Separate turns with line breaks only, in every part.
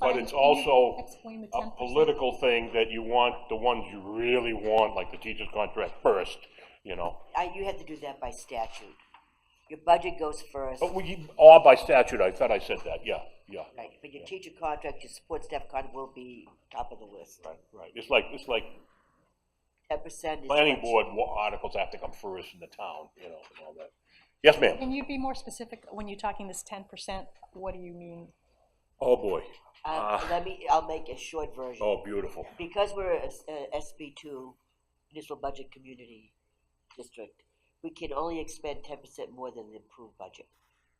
but it's also
Explain the
a
10%.
political thing that you want the ones you really want, like the teacher's contract first, you know?
I, you have to do that by statute. Your budget goes first,
But we, or by statute, I thought I said that, yeah, yeah.
right, but your teacher contract, your support staff contract will be top of the list.
Right, right. It's like, it's like
Ten percent is.
planning
what-
board wa- articles have to come first in the town, you know, and all that. Yes, ma'am?
Can you be more specific when you're talking this ten percent? What do you mean?
Oh, boy.
Uh, let me, I'll make a short version.
Ah. Oh, beautiful.
because we're a, s- a SB two, municipal budget community district, we can only expend ten percent more than the approved budget.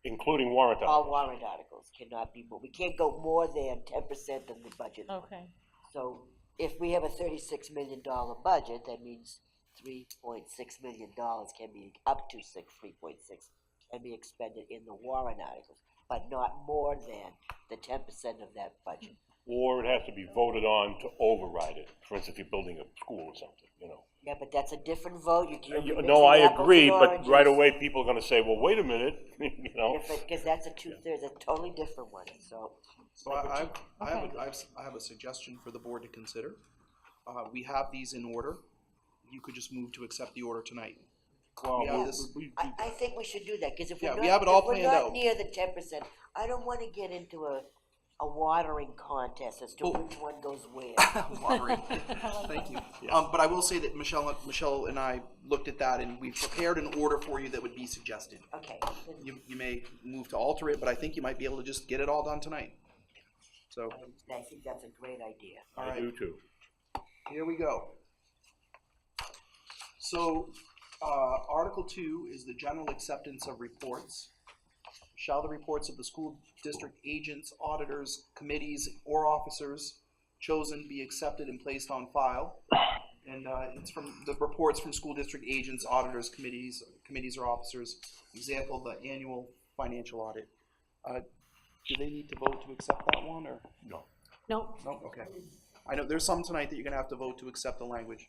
Including warrant
All
articles.
warrant articles cannot be more, we can't go more than ten percent than the budget.
Okay.
So if we have a thirty-six million dollar budget, that means three point six million dollars can be, up to six, three point six, can be expended in the warrant articles, but not more than the ten percent of that budget.
Or it has to be voted on to override it. For instance, if you're building a school or something, you know.
Yeah, but that's a different vote, you
Uh,
can't.
you-
be
No, I
mixing apples
agree,
and
but right
oranges.
away, people are gonna say, well, wait a minute, you know?
Because that's a two-thirds, a totally different one, so,
So I, I, I have,
Okay.
a- I have, s- I have a suggestion for the board to consider. Uh, we have these in order. You could just move to accept the order tonight. We have this,
I, I think we should do that, because if we're
Yeah,
not,
we
if
have it all
we're
planned
not
out.
near the ten percent, I don't wanna get into a, a watering contest as to
Oh.
which one goes where.
Lottery. Thank you. Um, but I will say that Michelle, Michelle and I looked at that and we prepared an order for you that would be suggested.
Okay, then
You, you may move to alter it, but I think you might be able to just get it all done tonight. So,
I think that's a great idea.
all
I
right.
do too.
Here we go. So, uh, Article Two is the general acceptance of reports. Shall the reports of the school district agents, auditors, committees, or officers chosen be accepted and placed on file? And, uh, it's from, the reports from school district agents, auditors, committees, committees or officers, example, the annual financial audit. Uh, do they need to vote to accept that one, or?
No.
No.
No, okay. I know there's some tonight that you're gonna have to vote to accept the language.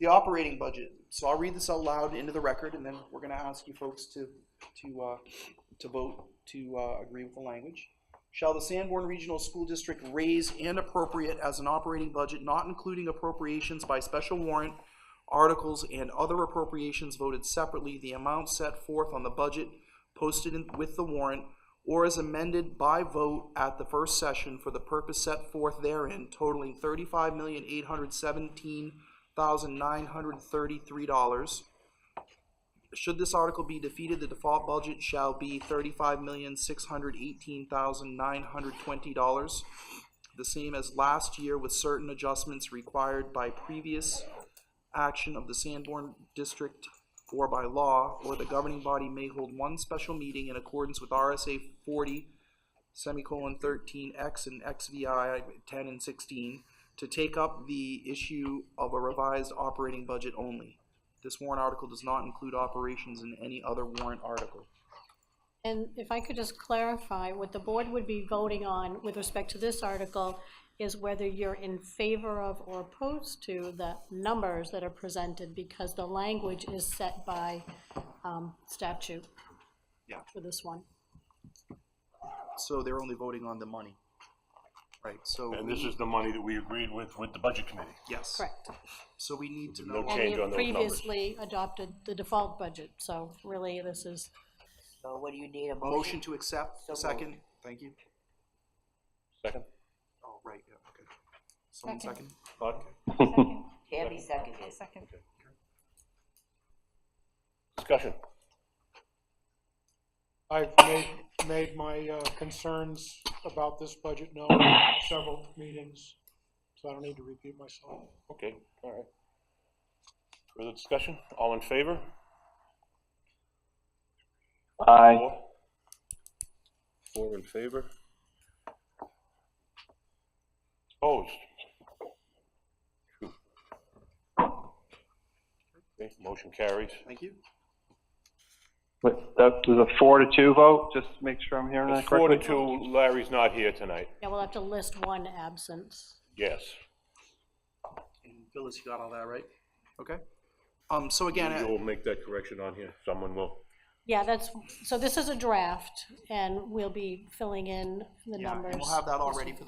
The operating budget, so I'll read this out loud into the record, and then we're gonna ask you folks to, to, uh, to vote to, uh, agree with the language. Shall the Sanborn Regional School District raise and appropriate as an operating budget, not including appropriations by special warrant, articles, and other appropriations voted separately, the amount set forth on the budget posted in- with the warrant, or as amended by vote at the first session for the purpose set forth therein totaling thirty-five million eight hundred seventeen thousand nine hundred thirty-three dollars. Should this article be defeated, the default budget shall be thirty-five million six hundred eighteen thousand nine hundred twenty dollars, the same as last year with certain adjustments required by previous action of the Sanborn District or by law, or the governing body may hold one special meeting in accordance with RSA forty, semicolon thirteen X and XVI ten and sixteen, to take up the issue of a revised operating budget only. This warrant article does not include operations in any other warrant article.
And if I could just clarify, what the board would be voting on with respect to this article is whether you're in favor of or opposed to the numbers that are presented, because the language is set by um, statute
Yeah.
for this one.
So they're only voting on the money. Right, so,
And this is the money that we agreed with, with the budget committee.
yes.
Correct.
So we need to
No
know,
And
change
you
on those numbers.
previously adopted the default budget, so really, this is,
So what do you need, a
motion
motion?
to accept,
So
second, thank you.
Second?
Oh, right, yeah, okay. Someone
Second.
second?
Bud?
Second.
Tammy seconded.
Second.
Discussion.
I've made, made my uh, concerns about this budget known in several meetings, so I don't need to repeat myself.
Okay, all right. Further discussion? All in favor?
Aye.
Four? Four in favor? Opposed? Two. Okay, motion carries.
Thank you.
Wait, that was a four to two vote, just to make sure I'm hearing that
It's four
correctly?
to two, Larry's not here tonight.
yeah, we'll have to list one absence.
Yes.
And Phyllis, you got all that right? Okay. Um, so again,
You
I-
will make that correction on here. Someone will.
Yeah, that's, so this is a draft, and we'll be filling in the
yeah,
numbers.
and we'll have that all
this
ready
week.
for